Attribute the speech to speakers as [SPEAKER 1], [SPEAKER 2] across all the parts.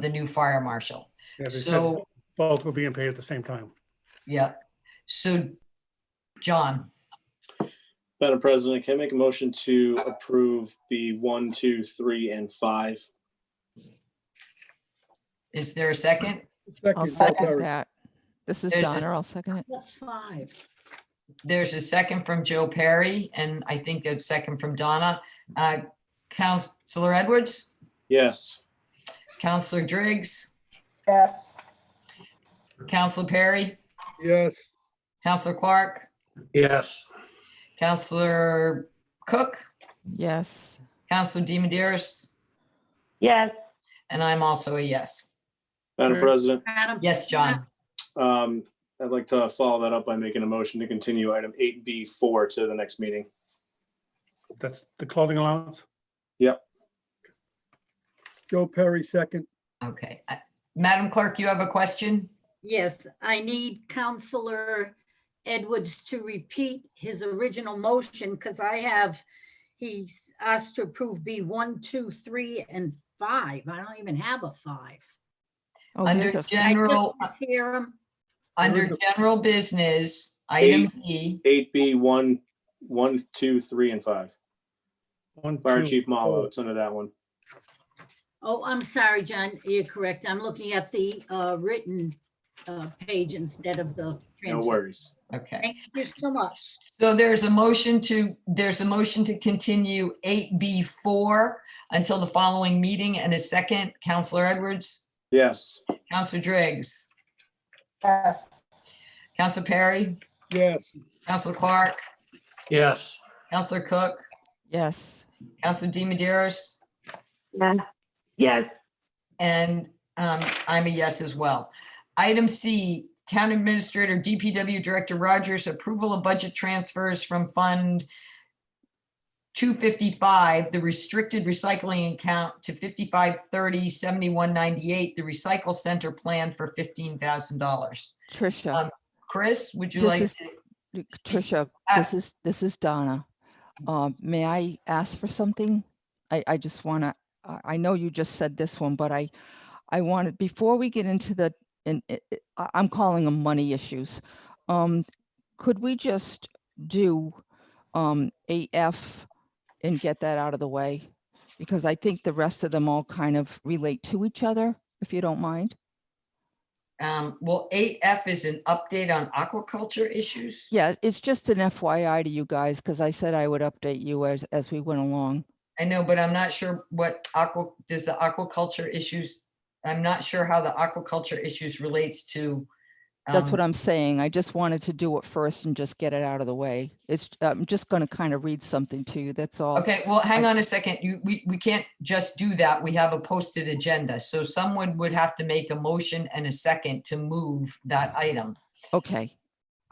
[SPEAKER 1] the new fire marshal.
[SPEAKER 2] Yeah, they said
[SPEAKER 1] So,
[SPEAKER 2] Both were being paid at the same time.
[SPEAKER 1] yeah. So, John,
[SPEAKER 3] Madam President, can I make a motion to approve the one, two, three, and five?
[SPEAKER 1] is there a second?
[SPEAKER 4] I'll
[SPEAKER 2] Second,
[SPEAKER 4] second that. This is
[SPEAKER 1] There's just-
[SPEAKER 4] Donna. I'll second it.
[SPEAKER 5] That's five.
[SPEAKER 1] There's a second from Joe Perry, and I think a second from Donna. Uh, Counselor Edwards,
[SPEAKER 3] Yes.
[SPEAKER 1] Counselor Driggs,
[SPEAKER 6] yes,
[SPEAKER 1] Counselor Perry,
[SPEAKER 2] Yes.
[SPEAKER 1] Counselor Clark,
[SPEAKER 2] Yes.
[SPEAKER 1] Counselor Cook,
[SPEAKER 4] Yes.
[SPEAKER 1] Counselor DiMederos,
[SPEAKER 6] yes,
[SPEAKER 1] and I'm also a yes.
[SPEAKER 3] Madam
[SPEAKER 2] Sure.
[SPEAKER 3] President,
[SPEAKER 5] Madam-
[SPEAKER 1] Yes, John.
[SPEAKER 3] um, I'd like to follow that up by making a motion to continue item eight B four to the next meeting.
[SPEAKER 2] That's the clothing allowance?
[SPEAKER 3] Yep.
[SPEAKER 2] Joe Perry, second.
[SPEAKER 1] Okay. Uh, Madam Clerk, you have a question?
[SPEAKER 5] Yes, I need Counselor Edwards to repeat his original motion because I have, he's asked to approve B one, two, three, and five. I don't even have a five.
[SPEAKER 4] Oh,
[SPEAKER 1] Under
[SPEAKER 4] there's a
[SPEAKER 5] I
[SPEAKER 1] Jen-
[SPEAKER 4] f-
[SPEAKER 1] General-
[SPEAKER 5] just Hear him.
[SPEAKER 1] Under
[SPEAKER 2] There is
[SPEAKER 1] general business, item E.
[SPEAKER 3] Eight B one, one, two, three, and five.
[SPEAKER 2] One,
[SPEAKER 3] Fire
[SPEAKER 2] two,
[SPEAKER 3] Chief Malo,
[SPEAKER 2] four.
[SPEAKER 3] it's under that one.
[SPEAKER 5] Oh, I'm sorry, John, you're correct. I'm looking at the uh, written uh, page instead of the
[SPEAKER 3] No
[SPEAKER 5] transcript.
[SPEAKER 3] worries.
[SPEAKER 1] Okay.
[SPEAKER 5] Thank you so much.
[SPEAKER 1] So there's a motion to, there's a motion to continue eight B four until the following meeting and a second, Counselor Edwards,
[SPEAKER 3] Yes.
[SPEAKER 1] Counselor Driggs,
[SPEAKER 6] yes,
[SPEAKER 1] Counselor Perry,
[SPEAKER 2] Yes.
[SPEAKER 1] Counselor Clark,
[SPEAKER 2] Yes.
[SPEAKER 1] Counselor Cook,
[SPEAKER 4] Yes.
[SPEAKER 1] Counselor DiMederos,
[SPEAKER 6] yes, yes,
[SPEAKER 1] and um, I'm a yes as well. Item C, Town Administrator DPW Director Rogers, approval of budget transfers from Fund 255, the restricted recycling account to 5530 7198, the recycle center plan for $15,000.
[SPEAKER 4] Tricia,
[SPEAKER 1] Um, Chris, would you
[SPEAKER 4] This
[SPEAKER 1] like?
[SPEAKER 4] is-
[SPEAKER 1] to-
[SPEAKER 4] Look, Tricia,
[SPEAKER 1] uh,
[SPEAKER 4] this is, this is Donna.
[SPEAKER 1] Mm-hmm.
[SPEAKER 4] Um, May I ask for something? I, I just want to, I know you just said this one, but I, I wanted, before we get into the, and it- it- I- I'm calling them money issues. Um, Could we just do um, AF and get that out of the way? Because I think the rest of them all kind of relate to each other, if you don't mind.
[SPEAKER 1] um, Well, 8F is an update on aquaculture issues.
[SPEAKER 4] Yeah, it's just an FYI to you guys, because I said I would update you as, as we went along.
[SPEAKER 1] I know, but I'm not sure what aqua, does the aquaculture issues, I'm not sure how the aquaculture issues relates to.
[SPEAKER 4] That's
[SPEAKER 1] um,
[SPEAKER 4] what I'm saying. I just wanted to do it first and just get it out of the way. It's, I'm just going to kind of read something to you. That's all.
[SPEAKER 1] Okay, well, hang on a second. You, we, we can't just do that. We have a posted agenda. So someone would have to make a motion and a second to move that item.
[SPEAKER 4] Okay.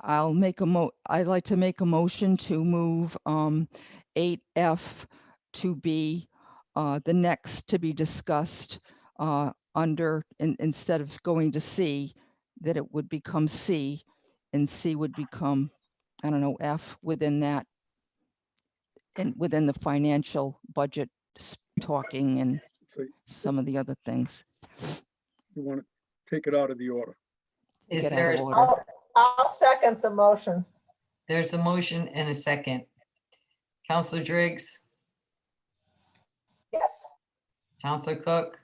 [SPEAKER 4] I'll make a mo, I'd like to make a motion to move, um, eight F to be, uh, the next to be discussed, uh, under, in, instead of going to C, that it would become C and C would become, I don't know, F within that. And within the financial budget s- talking and
[SPEAKER 7] So you
[SPEAKER 4] some of the other things.
[SPEAKER 7] want to take it out of the order.
[SPEAKER 1] Is
[SPEAKER 4] Get out
[SPEAKER 1] there,
[SPEAKER 4] of order.
[SPEAKER 6] I'll, I'll second the motion,
[SPEAKER 1] there's a motion and a second. Counselor Driggs,
[SPEAKER 6] yes,
[SPEAKER 1] Counselor Cook,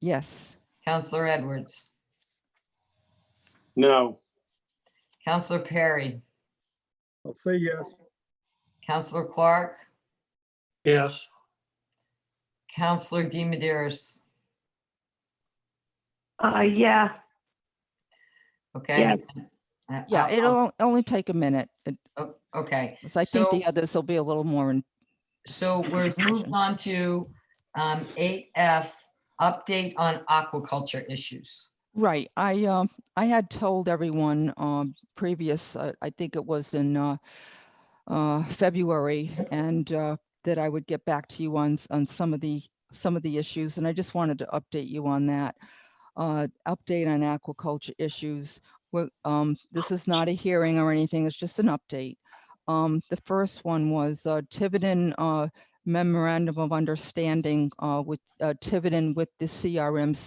[SPEAKER 4] Yes.
[SPEAKER 1] Counselor Edwards,
[SPEAKER 3] No.
[SPEAKER 1] Counselor Perry,
[SPEAKER 7] I'll say yes.
[SPEAKER 1] Counselor Clark,
[SPEAKER 2] Yes.
[SPEAKER 1] Counselor DiMederos.
[SPEAKER 6] uh, yeah,
[SPEAKER 1] Okay.
[SPEAKER 6] Yeah.
[SPEAKER 1] Uh,
[SPEAKER 4] Yeah,
[SPEAKER 1] I'll-
[SPEAKER 4] it'll on- only take a minute. It-
[SPEAKER 1] I'll- Okay,
[SPEAKER 4] 'cause I think the
[SPEAKER 1] So-
[SPEAKER 4] others will be a little more in
[SPEAKER 1] so we're moved
[SPEAKER 4] Discussion.
[SPEAKER 1] on to um, 8F, update on aquaculture issues.
[SPEAKER 4] Right, I, um, I had told everyone, um, previous, uh, I think it was in, uh, uh, February, and, uh, that I would get back to you on, s- on some of the, some of the issues, and I just wanted to update you on that. Uh, update on aquaculture issues, Well, um, this is not a hearing or anything, it's just an update. Um, the first one was, uh, Tiverton, uh, memorandum of understanding, uh, with, uh, Tiverton with the CRMC.